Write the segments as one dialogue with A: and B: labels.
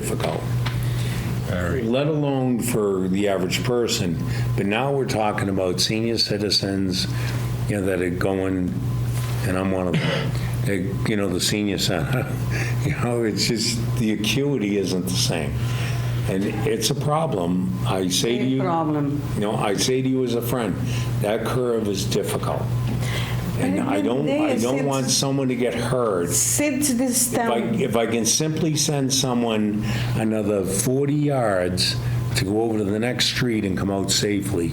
A: difficult,
B: All right.
A: let alone for the average person. But now we're talking about senior citizens, you know, that are going, and I'm one of them, that, you know, the senior center. You know, it's just, the acuity isn't the same. And it's a problem. I say to
C: Big
A: you.
C: problem.
A: You know, I say to you as a friend, that curve is difficult. And
C: But
A: I
C: at the end of
A: don't,
C: the day,
A: I don't
C: it's-
A: want someone to get hurt
C: Since this
A: if I,
C: town,
A: if I can simply send someone another 40 yards to go over to the next street and come out safely,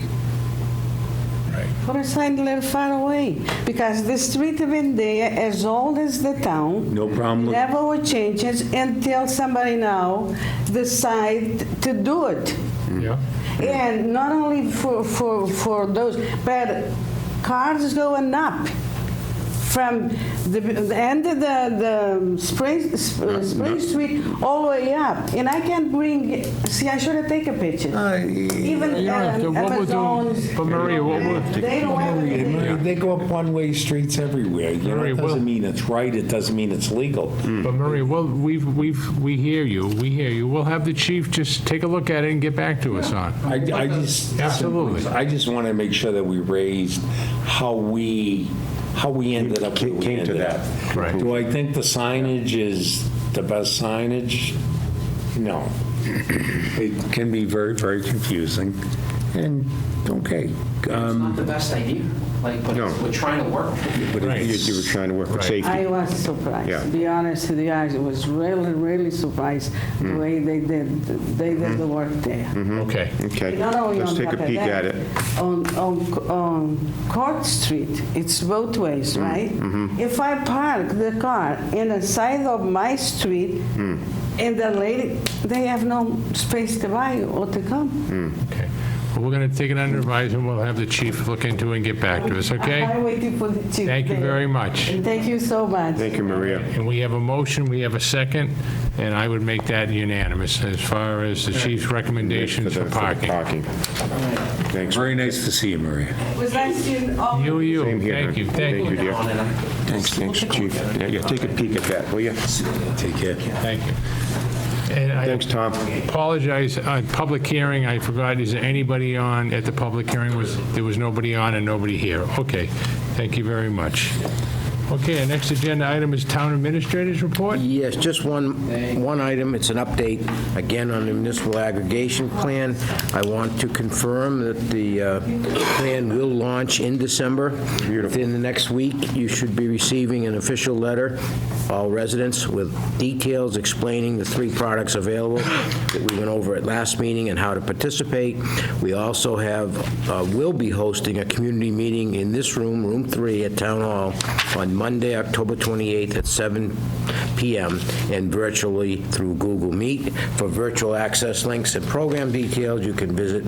C: put a sign a little far away, because the street have been there as old as the town.
A: no problem.
C: Never will change it until somebody now decide to do it.
B: Yeah.
C: And not only for, for, for those, but cars going up from the, the end of the, the Spring, Sp- Spring Street all the way up. And I can bring, see, I should have taken pictures. Even
B: You don't have to-
C: um,
B: what we're doing-
C: Amazon's.
B: but Maria, what we're-
C: They don't have anything.
A: They go up one-way streets everywhere. You know,
B: Very
A: it
B: well.
A: doesn't mean it's right, it doesn't mean it's legal.
B: But Maria, well, we've, we've, we hear you, we hear you. We'll have the chief just take a look at it and get back to us on. it.
A: I, I just.
B: Absolutely.
A: I just want to make sure that we raised how we, how we ended up where we
D: Came to
A: ended
D: that
A: up.
B: Correct.
A: Do I think the signage is the best signage? No. It can be very, very confusing, and, okay. Um,
E: It's not the best idea, like, but
D: No.
E: we're trying to work.
D: But if you you were trying to work with
B: Right.
D: safety.
C: I was surprised.
D: Yeah.
C: To be honest with you, I was really, really surprised the
D: Hmm.
C: way they did, they did the work there.
B: Okay.
D: Okay,
C: Not only
D: Hmm. let's
C: on
D: take a
C: top of
D: peek
C: that,
D: at it.
C: On, on, on Court Street, it's both ways,
D: Hmm.
C: right?
D: Mm-hmm.
C: If I park the car in the side of my street,
D: Hmm.
C: and the lady, they have no space to buy or to come.
B: Okay. Well, we're going to take it under advisement, we'll have the chief look into it and get back to us, okay?
C: I'm waiting for the chief.
B: Thank you
C: there.
B: very much.
C: Thank you so much.
D: Thank you, Maria.
B: And we have a motion, we have a second, and I would make that unanimous as far as the chief's recommendations
D: the-
B: for
D: the
B: parking.
D: Parking. Thanks.
A: Very nice to see you, Maria.
C: Was I seeing all?
B: You, you,
D: Same here,
B: thank
D: hon.
B: you, thank
D: Thank you,
B: you,
D: dear. Thanks, thanks, chief. Yeah, yeah, take a peek at that, will you?
A: Take care.
B: thank you. And I
D: Thanks, Tom.
B: apologize, uh, public hearing, I forgot, is there anybody on, at the public hearing, was, there was nobody on and nobody here? Okay, thank you very much. Okay, our next agenda item is Town Administrator's Report.
F: Yes, just one, one item, it's an update, again, on the municipal aggregation plan. I want to confirm that the uh, plan will launch in December. Within the next week, you should be receiving an official letter, all residents, with details explaining the three products available that we went over at last meeting and how to participate. We also have, uh, will be hosting a community meeting in this room, Room 3 at Town Hall, on Monday, October 28th at 7 p.m. and virtually through Google Meet. For virtual access links and program details, you can visit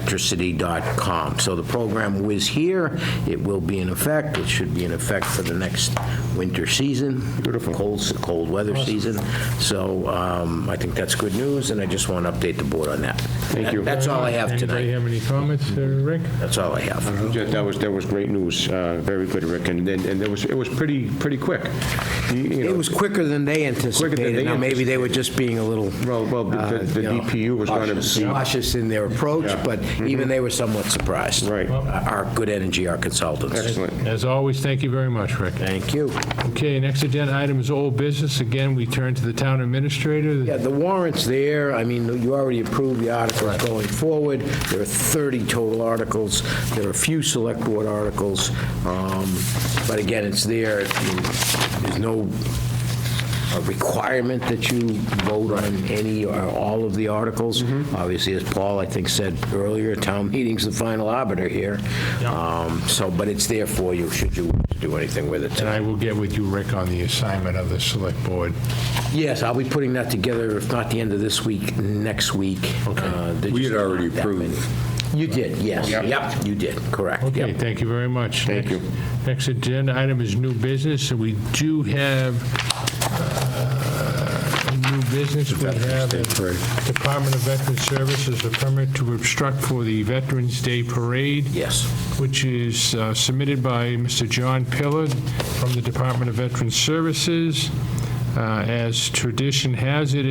F: milfordcommunityelectricity.com. So the program was here, it will be in effect, it should be in effect for the next winter season. Beautiful. Cold, cold weather season. So um, I think that's good news, and I just want to update the board on that. Thank you. That's all I have
B: Anybody
F: tonight.
B: have any comments, uh, Rick?
F: That's all I have.
D: That that was, that was great news. Uh, Very good, Rick. And then, and it was, it was pretty, pretty quick. You- you know,
F: It was quicker than they
D: they
F: anticipated. Now, maybe they were just being a little
D: Well, well, the
F: uh,
D: the
F: you know,
D: DPU was going to,
F: cautious in their approach,
D: Yeah. Mm-hmm.
F: but even they were somewhat surprised.
D: Right.
F: Our good energy, our consultants.
D: excellent.
B: As always, thank you very much, Rick.
F: Thank you.
B: Okay, next agenda item is Old Business. Again, we turn to the Town Administrator.
F: Yeah, the warrant's there. I mean, you already approved the articles going forward. There are 30 total articles. There are a few select board articles. Um, But again, it's there. There's no a requirement that you vote on any or all of the articles. Obviously, as Paul, I think, said earlier, town meeting's the final arbiter here. Um, So, but it's there for you, should you do anything with it
B: And
F: tonight.
B: I will get with you, Rick, on the assignment of the Select Board.
F: Yes, I'll be putting that together, if not the end of this week, next week. Uh, there's
A: We had
F: just
A: already
F: not that
A: approved.
F: many. You did, yes. Yep, you did, correct.
B: Okay,
F: Yep.
B: thank you very much.
D: Thank
B: Next-
D: you.
B: Next agenda item is new business, and we do have uh, new business. We have the Department of Veteran Services, a permit to obstruct for the Veterans Day Parade,
F: Yes.
B: which is uh, submitted by Mr. John Pillard from the Department of Veteran Services. Uh, As tradition has it,